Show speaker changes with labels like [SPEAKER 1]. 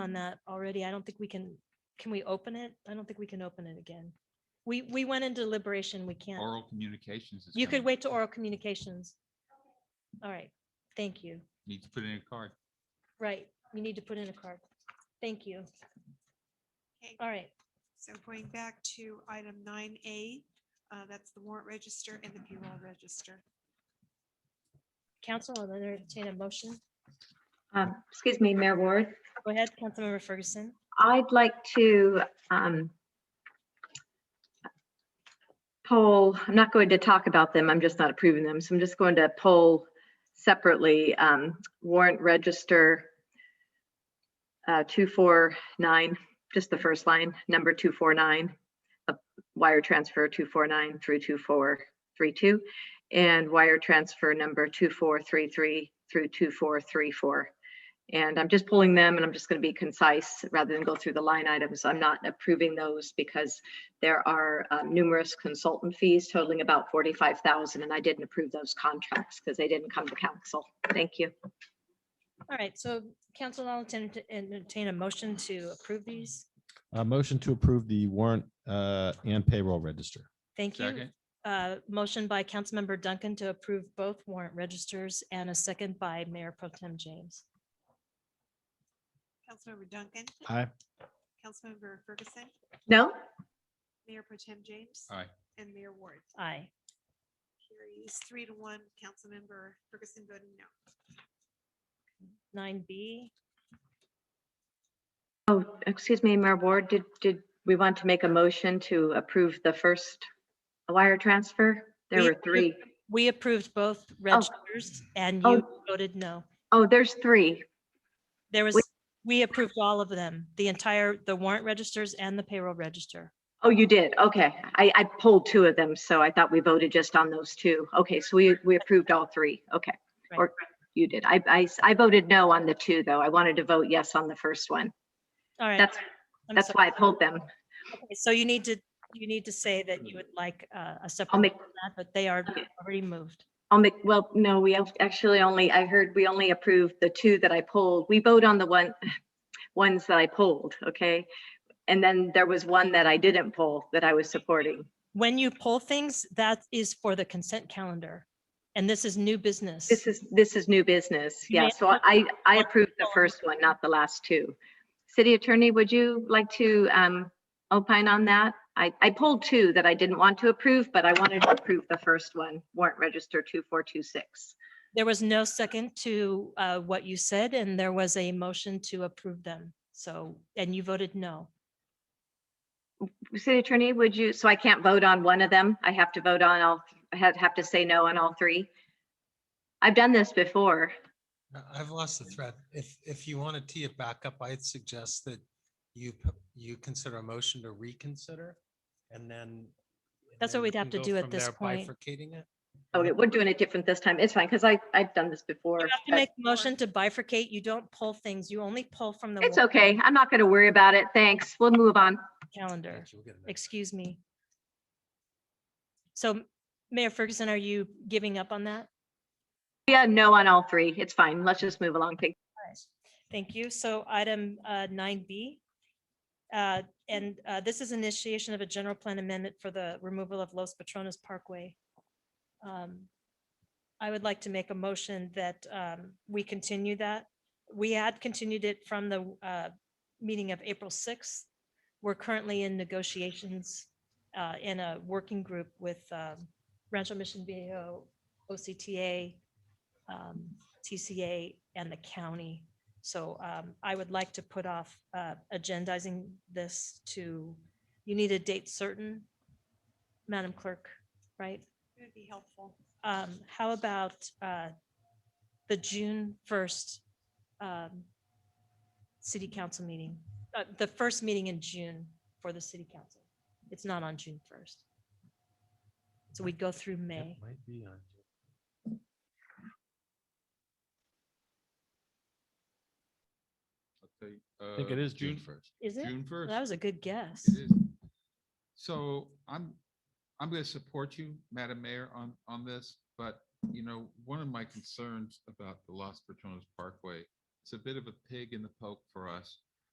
[SPEAKER 1] on that already. I don't think we can, can we open it? I don't think we can open it again. We, we went into deliberation. We can't.
[SPEAKER 2] Oral communications. is
[SPEAKER 1] You
[SPEAKER 2] gonna-
[SPEAKER 1] could wait to oral communications. All right, thank you.
[SPEAKER 2] Need to put in a card.
[SPEAKER 1] Right, you need to put in a card. Thank you.
[SPEAKER 3] Okay.
[SPEAKER 1] All right,
[SPEAKER 3] So going back to item nine A, uh, that's the warrant register and the payroll register.
[SPEAKER 1] council, I'll entertain a motion.
[SPEAKER 4] Um, Excuse me, Mayor Ward.
[SPEAKER 1] Go ahead, Councilmember Ferguson.
[SPEAKER 4] I'd like to um, poll, I'm not going to talk about them. I'm just not approving them. So I'm just going to poll separately um, warrant register uh, 249, just the first line, number 249, uh, wire transfer 249 through 2432, and wire transfer number 2433 through 2434. And I'm just pulling them and I'm just going to be concise rather than go through the line items. I'm not approving those because there are um, numerous consultant fees totaling about 45,000 and I didn't approve those contracts because they didn't come to council. Thank you.
[SPEAKER 1] All right, so council, I'll entertain- entertain a motion to approve these.
[SPEAKER 5] A motion to approve the warrant uh, and payroll register.
[SPEAKER 1] Thank you.
[SPEAKER 2] Second,
[SPEAKER 1] Uh, Motion by Councilmember Duncan to approve both warrant registers and a second by Mayor Pro Tem James.
[SPEAKER 3] Councilmember Duncan,
[SPEAKER 5] Aye.
[SPEAKER 3] Councilmember Ferguson,
[SPEAKER 4] No?
[SPEAKER 3] Mayor Pro Tem James.
[SPEAKER 2] Aye.
[SPEAKER 3] And Mayor Ward.
[SPEAKER 1] Aye.
[SPEAKER 3] Carries three to one, Councilmember Ferguson voting no.
[SPEAKER 1] Nine B,
[SPEAKER 4] Oh, excuse me, Mayor Ward, did, did we want to make a motion to approve the first wire transfer? There
[SPEAKER 1] We
[SPEAKER 4] were
[SPEAKER 1] approved-
[SPEAKER 4] three.
[SPEAKER 1] we approved both registers and you voted no.
[SPEAKER 4] Oh, there's three.
[SPEAKER 1] There was, we approved all of them, the entire, the warrant registers and the payroll register.
[SPEAKER 4] Oh, you did? Okay. I, I pulled two of them, so I thought we voted just on those two. Okay, so we, we approved all three. Okay.
[SPEAKER 1] Right.
[SPEAKER 4] Or you did. I, I, I voted no on the two, though. I wanted to vote yes on the first one.
[SPEAKER 1] All right.
[SPEAKER 4] That's,
[SPEAKER 1] I'm
[SPEAKER 4] that's why
[SPEAKER 1] sorry.
[SPEAKER 4] I pulled them.
[SPEAKER 1] Okay, So you need to, you need to say that you would like uh, a separate,
[SPEAKER 4] make-
[SPEAKER 1] vote on that, but they are
[SPEAKER 4] Okay.
[SPEAKER 1] already moved.
[SPEAKER 4] I'll make, well, no, we ac- actually only, I heard we only approved the two that I pulled. We vote on the one, ones that I pulled, okay? And then there was one that I didn't pull that I was supporting.
[SPEAKER 1] When you pull things, that is for the consent calendar. And this is new business.
[SPEAKER 4] This is, this is new business.
[SPEAKER 1] You may
[SPEAKER 4] Yeah, so I, I approved the first one, not the last two. City Attorney, would you like to um, opine on that? I, I pulled two that I didn't want to approve, but I wanted to approve the first one, warrant register 2426.
[SPEAKER 1] There was no second to uh, what you said, and there was a motion to approve them. So, and you voted no.
[SPEAKER 4] City Attorney, would you, so I can't vote on one of them? I have to vote on all, I have, have to say no on all three? I've done this before.
[SPEAKER 6] I- I've lost the thread. If, if you want to tee it back up, I'd suggest that you, p- you consider a motion to reconsider and then. and
[SPEAKER 1] That's what
[SPEAKER 6] then you
[SPEAKER 1] we'd have
[SPEAKER 6] can
[SPEAKER 1] to
[SPEAKER 6] go
[SPEAKER 1] do at
[SPEAKER 6] from
[SPEAKER 1] this
[SPEAKER 6] there,
[SPEAKER 1] point.
[SPEAKER 6] Bifurcating it.
[SPEAKER 4] Okay, Oh, we're doing it different this time. It's fine, because I, I've done this before.
[SPEAKER 1] You have to
[SPEAKER 4] but
[SPEAKER 1] make a motion to bifurcate. You don't pull things. You only pull from the
[SPEAKER 4] It's
[SPEAKER 1] warrant
[SPEAKER 4] okay. I'm not going to worry about it. Thanks. We'll move on.
[SPEAKER 1] calendar.
[SPEAKER 6] Thank you, we'll get it next time.
[SPEAKER 1] Excuse me. So Mayor Ferguson, are you giving up on that?
[SPEAKER 4] Yeah, no on all three. It's fine. Let's just move along. Thank-
[SPEAKER 1] Thank you. So item uh, nine B. And uh, this is initiation of a general plan amendment for the removal of Los Patronos Parkway. Um, I would like to make a motion that um, we continue that. We had continued it from the uh, meeting of April sixth. We're currently in negotiations uh, in a working group with um, Rancho Mission Viejo, OCTA, um, TCA, and the county. So um, I would like to put off uh, agendizing this to, you need a date certain, Madam Clerk, right?
[SPEAKER 3] It would be helpful.
[SPEAKER 1] Um, How about uh, the June 1st um, City Council meeting? Uh, The first meeting in June for the City Council. It's not on June 1st. So we go through
[SPEAKER 6] It
[SPEAKER 1] May.
[SPEAKER 6] might be on.
[SPEAKER 2] I'll tell you,
[SPEAKER 5] I think
[SPEAKER 2] uh,
[SPEAKER 5] it is June
[SPEAKER 2] first.
[SPEAKER 5] 1st.
[SPEAKER 1] Is it?
[SPEAKER 2] June
[SPEAKER 1] Well,
[SPEAKER 2] first.
[SPEAKER 1] That was a good guess.
[SPEAKER 2] It is. So I'm, I'm going to support you, Madam Mayor, on, on this, but you know, one of my concerns about the Los Patronos Parkway, it's a bit of a pig in the poke for us.